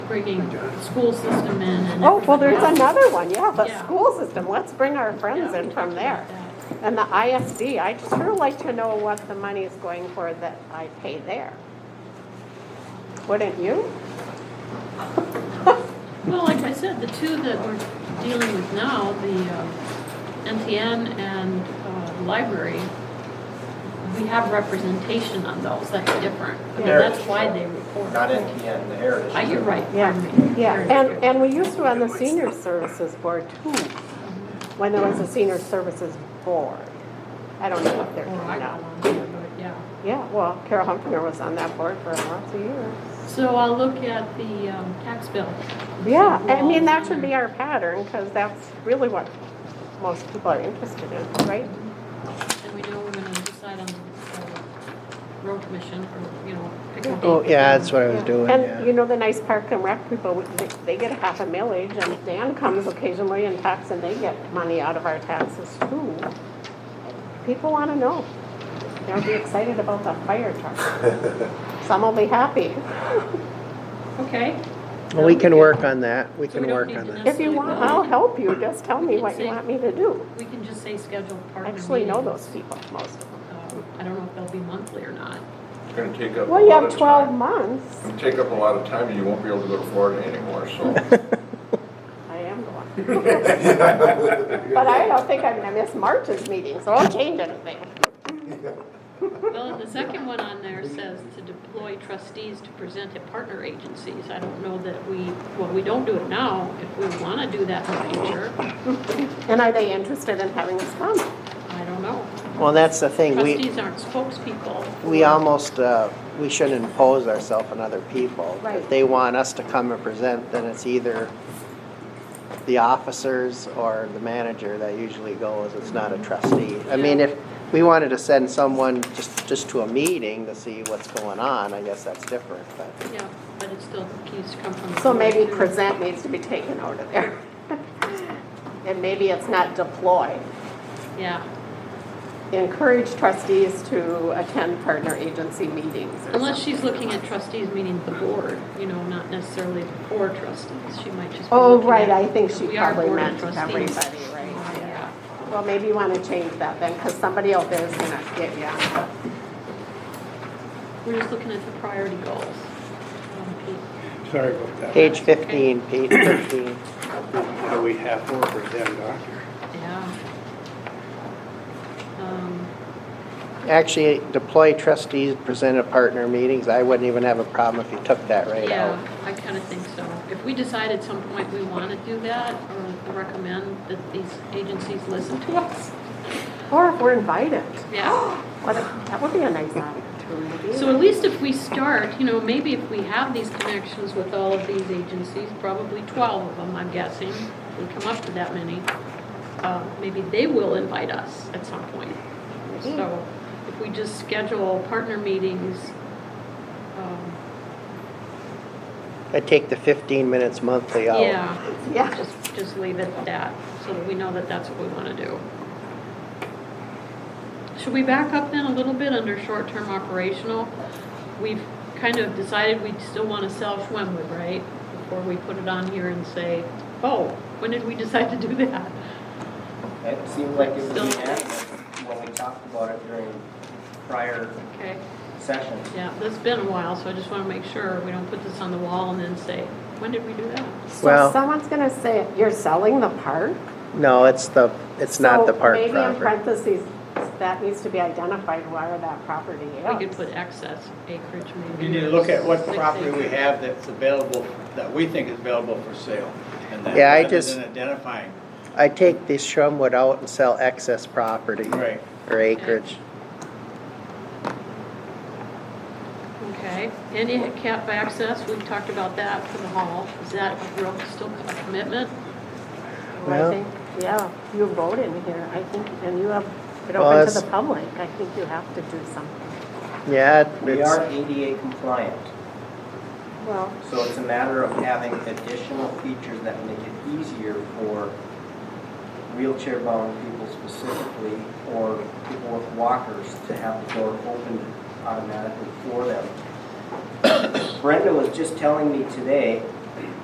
bringing school system in and. Oh, well, there's everything else. another one, yeah, the Yeah. school system, let's bring our friends in from there. And the ISD, I'd sure like to know what the money is going for that I pay there. Wouldn't you? Well, like I said, the two that we're dealing with now, the uh, NTN and uh, library, we have representation on those, that's different. I mean, that's why they report. Not NTN, the Heritage. Uh, You're right. Yeah, pardon me. yeah, Very and, true. and we used to on the senior services board too, when there was a senior services board. I don't know what they're doing Or I got now. one, but yeah. Yeah, well, Carol Humphrey was on that board for lots of years. So I'll look at the um, tax bill. Yeah, I mean, that should be our pattern, because that's really what most people are interested in, right? And we know we're gonna decide on the road commission or, you know, pick a date. Oh, yeah, that's what I was doing, And you yeah. know, the nice park and rec people, we- they- they get a half a millage, and Dan comes occasionally and talks, and they get money out of our taxes too. People want to know. They'll be excited about the fire truck. Some will be happy. Okay. Well, We can work on that, we So can we don't work need on to that. If you want, I'll help you, just tell me what you want me to do. We can just say scheduled I partner meetings. actually know those people, most of them. Um, I don't know if they'll be monthly or not. It's gonna take up a Well, you lot have of 12 time. months. It'll take up a lot of time and you won't be able to go to Florida anymore, so. I am going. But I don't think I'm gonna miss March's meeting, so I'll change anything. Well, the second one on there says to deploy trustees to present at partner agencies. I don't know that we, well, we don't do it now. If we wanna do that in the future, And are they interested in having us come? I don't know. Well, that's the thing, we, Trustees aren't spokespeople. we almost, uh, we shouldn't impose ourselves on other people. Right. If they want us to come and present, then it's either the officers or the manager that usually goes, it's not a trustee. I mean, if we wanted to send someone just, just to a meeting to see what's going on, I guess that's different, but. Yeah, but it still keeps come from. the So maybe board. present needs to be taken out of there. And maybe it's not deploy. Yeah, Encourage trustees to attend partner agency meetings or unless something. she's looking at trustees meaning the board, you know, not necessarily the four trustees, she might just be Oh, looking right, at- I think she We are probably board of meant trustees. everybody, right? Yeah. Well, maybe you wanna change that then, because somebody out there is gonna get you. on. We're just looking at the priority goals. Um, Pete, Sorry about that. Page fifteen, page fifteen. Now we have four percent doctor. Yeah. Um, Actually, deploy trustees, present at partner meetings, I wouldn't even have a problem if you took that right out. Yeah, I kind of think so. If we decide at some point we want to do that or recommend that these agencies listen to us, Or if we're invited. yeah. What, if- that would be a nice opportunity. So at least if we start, you know, maybe if we have these connections with all of these agencies, probably 12 of them, I'm guessing, if we come up to that many, uh, maybe they will invite us at some point. So if we just schedule partner meetings, um, I take the 15 minutes monthly out. yeah, Yeah. just, just leave it at that, so that we know that that's what we want to do. Should we back up then a little bit under short-term operational? We've kind of decided we still want to sell Schwemmwood, right? Before we put it on here and say, oh, when did we decide to do that? It seemed like it was unanimous when we talked about it during prior Okay, sessions. yeah, that's been a while, so I just want to make sure we don't put this on the wall and then say, when did we do that? So Well- someone's gonna say, you're selling the park? No, it's the, it's not the So park Maybe in property. parentheses, that needs to be identified where that property is. We could put excess acreage maybe. You need to look at what six property we acres. have that's available, that we think is available for sale. and that- Yeah, I rather just- than identifying, I take the Shumwood out and sell excess property. right. Or acreage. Okay, any cap access, we've talked about that for the hall, is that a real, still a commitment? I Yeah. think, yeah, you vote in here, I think, and you have it Well, open to that's- the public. I think you have to do something. Yeah, We are it's, ADA compliant, Well, so it's a matter of having additional features that make it easier for wheelchair-bound people specifically, or people with walkers, to have the door opened automatically for them. Brenda was just telling me today